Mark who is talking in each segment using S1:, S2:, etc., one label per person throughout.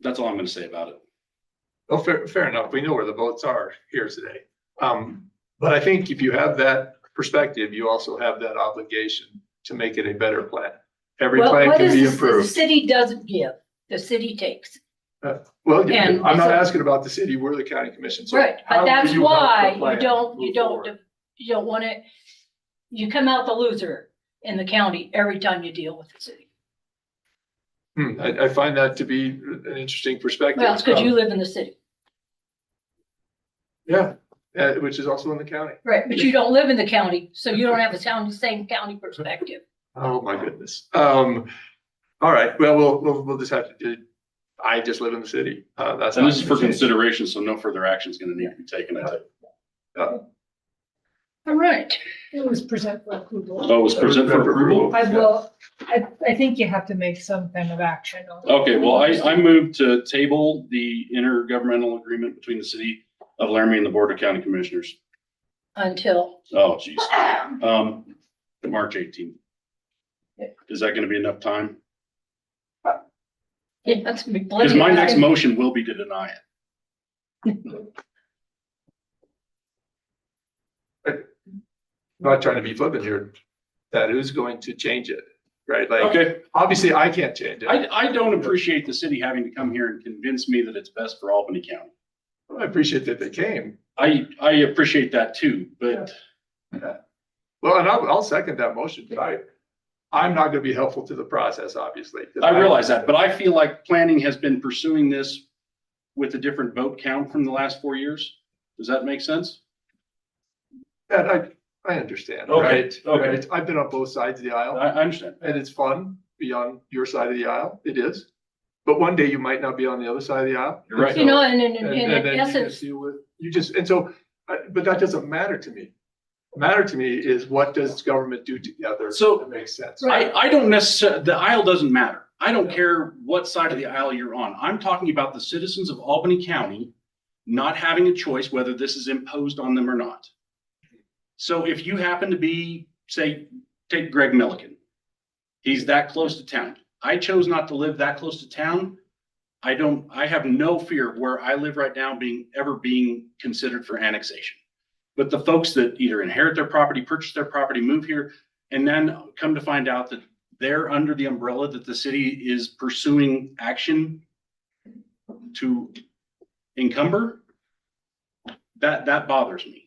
S1: that's all I'm gonna say about it.
S2: Well, Oh, fair, fair enough. We know where the votes are here today. Um, but I think if you have that perspective, you also have that obligation to make it a better plan. Every
S3: Well,
S2: plan
S3: what
S2: can
S3: is
S2: be
S3: this- The
S2: improved.
S3: city doesn't give, the city takes.
S2: Well,
S3: and
S2: I'm not
S3: so-
S2: asking about the city, we're the county commission. so
S3: Right,
S2: how
S3: but
S2: do
S3: that's
S2: help the
S3: why you
S2: plan
S3: don't, you
S2: move forward?
S3: don't, you don't want to, you come out the loser in the county every time you deal with the city.
S2: Hmm, I, I find that to be an interesting perspective.
S3: Well, it's because you live in the city,
S2: Yeah, uh, which is also in the county.
S3: right, but you don't live in the county, so you don't have the sound, same county perspective.
S2: Oh, my goodness. Um, all right, well, we'll, we'll, we'll just have to do, I just live in the city. Uh, that's.
S1: And
S2: not
S1: this is for
S2: gonna change.
S1: consideration, so no further action is gonna need to be taken. I think.
S3: All right,
S4: It was present for approval.
S1: Oh, it's presented for approval?
S4: I will, I, I think you have to make some kind of action on. it.
S1: Okay, well, I, I move to table the intergovernmental agreement between the city of Laramie and the Board of County Commissioners.
S3: until,
S1: Oh, jeez. Um, to March eighteenth. Is that gonna be enough time?
S3: yeah, that's. gonna be
S1: Because my
S3: plenty of
S1: next
S3: time.
S1: motion will be to deny it.
S2: Not trying to be flippant here, that who's going to change it, right? Like,
S1: Okay,
S2: obviously I can't change it.
S1: I, I don't appreciate the city having to come here and convince me that it's best for Albany County.
S2: I appreciate that they came.
S1: I, I appreciate that too, but
S2: Well, and I'll, I'll second that motion, but I, I'm not gonna be helpful to the process, obviously. 'cause
S1: I realize that, but I feel like planning has been pursuing this with a different vote count from the last four years. Does that make sense?
S2: And I, I understand,
S1: Okay,
S2: right?
S1: okay.
S2: Right? I've been on both sides of the
S1: I,
S2: aisle.
S1: I understand.
S2: and it's fun be on your side of the aisle. It is. But one day you might not be on the other side of the aisle.
S1: You're right.
S3: You know, and,
S2: And,
S3: and, and
S2: and
S3: in
S2: then you just
S3: essence,
S2: deal with, you just, and so, uh, but that doesn't matter to me. Matter to me is what does government do together?
S1: So-
S2: That makes sense.
S1: I, I don't necessarily, the aisle doesn't matter. I don't care what side of the aisle you're on. I'm talking about the citizens of Albany County not having a choice whether this is imposed on them or not. So if you happen to be, say, take Greg Milliken. He's that close to town. I chose not to live that close to town. I don't, I have no fear of where I live right now being, ever being considered for annexation. But the folks that either inherit their property, purchase their property, move here, and then come to find out that they're under the umbrella that the city is pursuing action to encumber. That, that bothers me.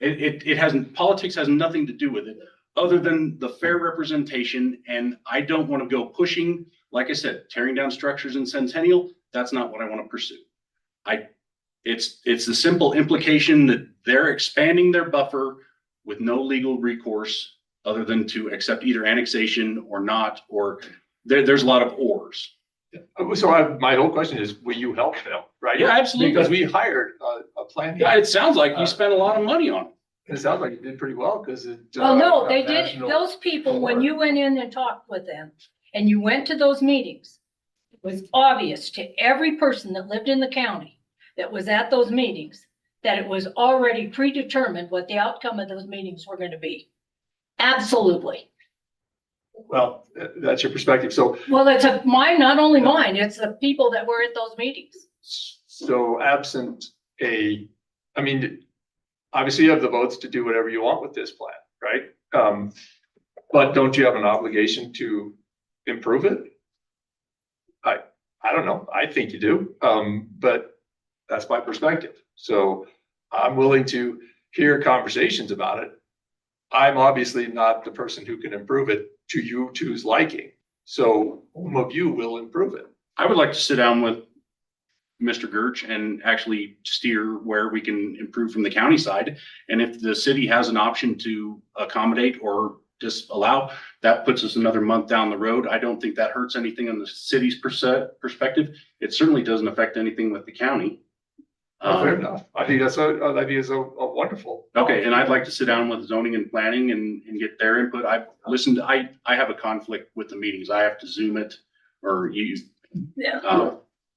S1: It, it, it hasn't, politics has nothing to do with it, other than the fair representation, and I don't want to go pushing, like I said, tearing down structures in Centennial, that's not what I want to pursue. I, it's, it's the simple implication that they're expanding their buffer with no legal recourse other than to accept either annexation or not, or there, there's a lot of ors.
S2: Uh, So I, my whole question is, will you help them, right?
S1: Yeah,
S2: Because
S1: absolutely.
S2: we hired a, a plan.
S1: Yeah, it sounds like you spent a lot of money on it.
S2: It sounds like it did pretty well because it.
S3: well,
S2: uh,
S3: no,
S2: got
S3: they did,
S2: national-
S3: those people, when you went in and talked with them and you went to those meetings, it was obvious to every person that lived in the county that was at those meetings, that it was already predetermined what the outcome of those meetings were gonna be. Absolutely.
S2: Well, uh, that's your perspective. So
S3: Well, it's a, mine, not only mine, it's the people that were at those meetings.
S2: So absent a, I mean, obviously you have the votes to do whatever you want with this plan, right? Um, but don't you have an obligation to improve it? I, I don't know. I think you do. Um, but that's my perspective. So I'm willing to hear conversations about it. I'm obviously not the person who can improve it to you two's liking. So whom of you will improve it?
S1: I would like to sit down with Mr. Gerch and actually steer where we can improve from the county side. And if the city has an option to accommodate or disallow, that puts us another month down the road. I don't think that hurts anything on the city's perse- perspective. It certainly doesn't affect anything with the county.
S2: Oh, Fair
S1: Um,
S2: enough. I think that's, uh, a- I think it's a a uh, wonderful.
S1: Okay, and I'd like to sit down with zoning and planning and, and get their input. I've listened, I, I have a conflict with the meetings. I have to zoom it or you.
S3: Yeah.
S1: Uh,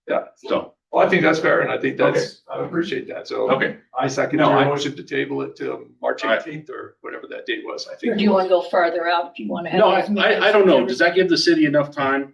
S2: Yeah.
S1: So,
S2: Well, I think that's fair and I think that's, I appreciate that. So
S1: okay,
S2: I second
S1: No,
S2: your
S1: I-
S2: motion to table it to March
S1: All right.
S2: eighteenth or whatever that date was, I
S3: Or
S2: think.
S3: do you wanna go farther out? Do you wanna have?
S1: no, I,
S3: those meetings?
S1: I I don't know. Does that give the city enough time?